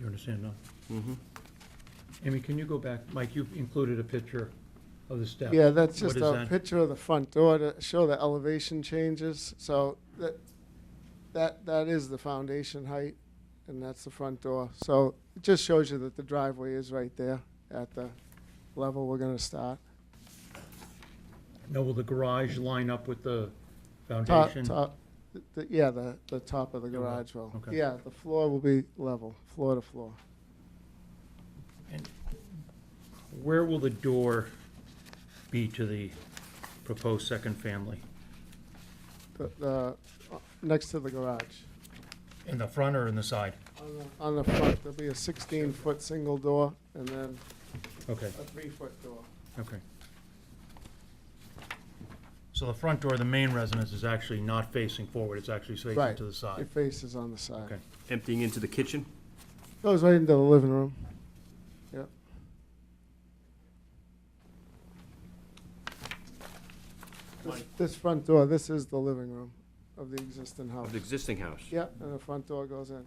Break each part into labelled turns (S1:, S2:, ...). S1: You understand now?
S2: Mm-hmm.
S1: Amy, can you go back? Mike, you've included a picture of the step.
S3: Yeah, that's
S1: What
S3: just
S1: is
S3: a
S1: that?
S3: picture of the front door to show the elevation changes. So that, that, that is the foundation height, and that's the front door. So it just shows you that the driveway is right there at the level we're gonna start.
S1: Now, will the garage line up with the
S3: Top,
S1: foundation?
S3: top, the- yeah, the, the top of the
S1: Yeah, well,
S3: garage will.
S1: okay.
S3: Yeah, the floor will be level, floor to floor.
S1: Where will the door be to the proposed second family?
S3: The, the, uh, next to the garage.
S1: In the front or in the side?
S3: On the- On the front, there'll be a sixteen-foot single door, and then
S1: Okay,
S3: a three-foot door.
S1: okay. So the front door, of the main residence, is actually not facing forward, it's actually facing
S3: Right.
S1: to the
S3: Your
S1: side.
S3: face is on the side.
S1: Okay.
S2: Emptying into the kitchen?
S3: Goes right into the living room. This, this front door, this is the living room of the existing house.
S2: Of the existing house?
S3: Yeah, and the front door goes in.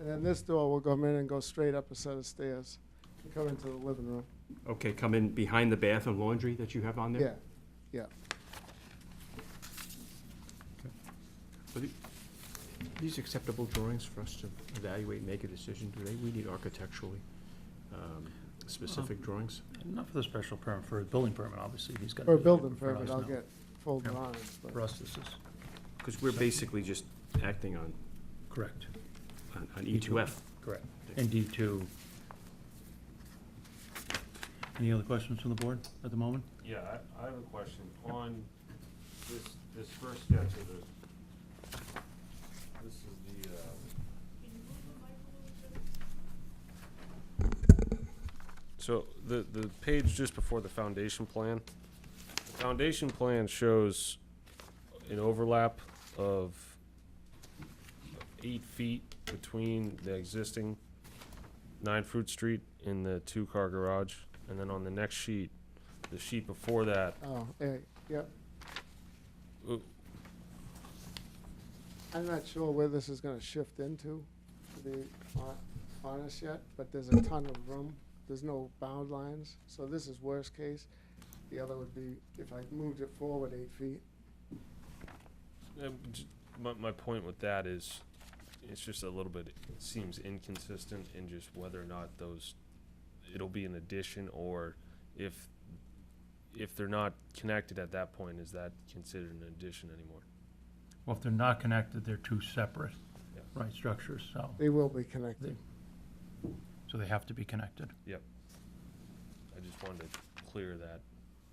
S3: And then this door will come in and go straight up a set of stairs and come into the living room.
S2: Okay, come in behind the bath and laundry that you have on
S3: Yeah,
S2: there?
S3: yeah.
S2: Yeah. These acceptable drawings for us to evaluate, make a decision today, we need architecturally um, specific drawings.
S1: Not for the special permit, for a building permit, obviously, he's got.
S3: For a building permit, I'll get full
S1: Yeah.
S3: drawings,
S1: For
S3: but
S1: us, this is
S2: Because we're basically just acting on,
S1: correct,
S2: on- on E E2F.
S1: correct. And D two. Any other questions from the board at the moment?
S4: Yeah, I, I have a question. On this, this first sketch of this, this is the, um. So the, the page just before the foundation plan, the foundation plan shows an overlap of eight feet between the existing nine Fruit Street and the two-car garage. And then on the next sheet, the sheet before that,
S3: Oh, yeah, yep.
S4: uh,
S3: I'm not sure where this is gonna shift into, to be hon- honest yet, but there's a ton of room. There's no bound lines, so this is worst case. The other would be if I moved it forward eight feet.
S4: uh, j- my, my point with that is, it's just a little bit, it seems inconsistent in just whether or not those, it'll be an addition, or if, if they're not connected at that point, is that considered an addition anymore?
S1: Well, if they're not connected, they're two separate,
S4: Yeah.
S1: right, structures, so,
S3: They will be connected.
S1: They- so they have to be connected.
S4: I just wanted to clear that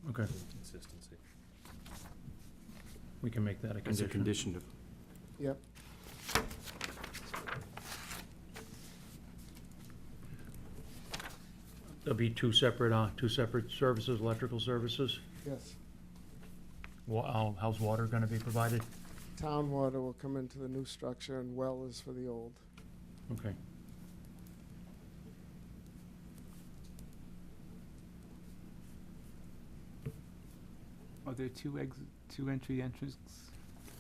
S1: Okay,
S4: inconsistency.
S1: we can make that a
S2: As
S3: E
S2: a
S1: condition.
S2: condition of,
S3: Yep.
S1: There'll be two separate, uh, two separate services, electrical services.
S3: Yes.
S1: Wa- how- how's water gonna be provided?
S3: Town water will come into the new structure and well is for the old.
S1: Okay.
S5: Are there two exit, two entry entrances?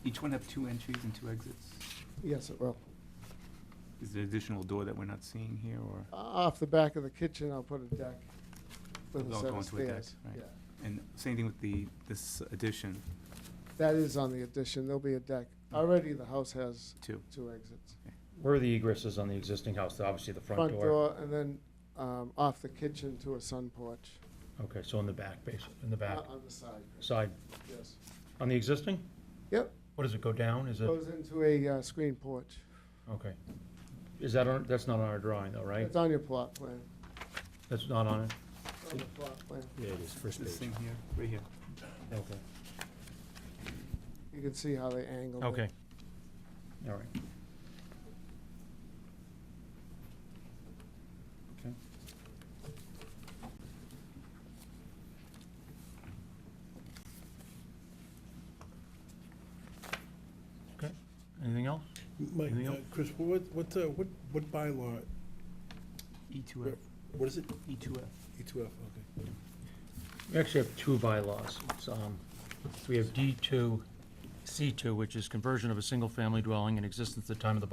S5: Each one have two entries and two exits?
S3: Yes, it will.
S5: Is there additional door that we're not seeing here, or,
S3: O- Uh, Off the back of the kitchen, I'll put a deck with a
S5: They'll
S3: set
S5: go
S3: of
S5: into a deck,
S3: stairs.
S5: right.
S3: Yeah.
S5: and same thing with the, this addition,
S3: That is on the addition. There'll be a deck. Already the house has
S5: two?
S3: two exits.
S1: Where are the egresses on the existing house? Obviously, the
S3: front door, and then um, off the kitchen to a sun porch.
S1: Okay, so in the back, basically, in the back,
S3: Not On the side,
S1: side,
S3: yes.
S1: on the existing?
S3: Yep,
S1: What does it go down? Is it,
S3: goes into a uh, screen porch.
S1: okay. Is that on, that's not on our drawing though, right?
S3: It's on your plot plan,
S1: That's not on it?
S3: It's on the plot plan.
S2: yeah, it is, first
S5: This
S2: page.
S5: thing here, right here.
S1: Okay.
S3: You can see how they angled it.
S1: Okay. All right. Okay. Okay, anything else?
S6: Mike,
S1: Anything
S6: uh,
S1: else?
S6: Chris, what, what, uh, what, what bylaw,
S5: E two F,
S6: what is it?
S5: E two F.
S6: E two F, okay.
S1: We actually have two bylaws. It's, um, we have D two, C two, which is conversion of a single-family dwelling in existence at the time of the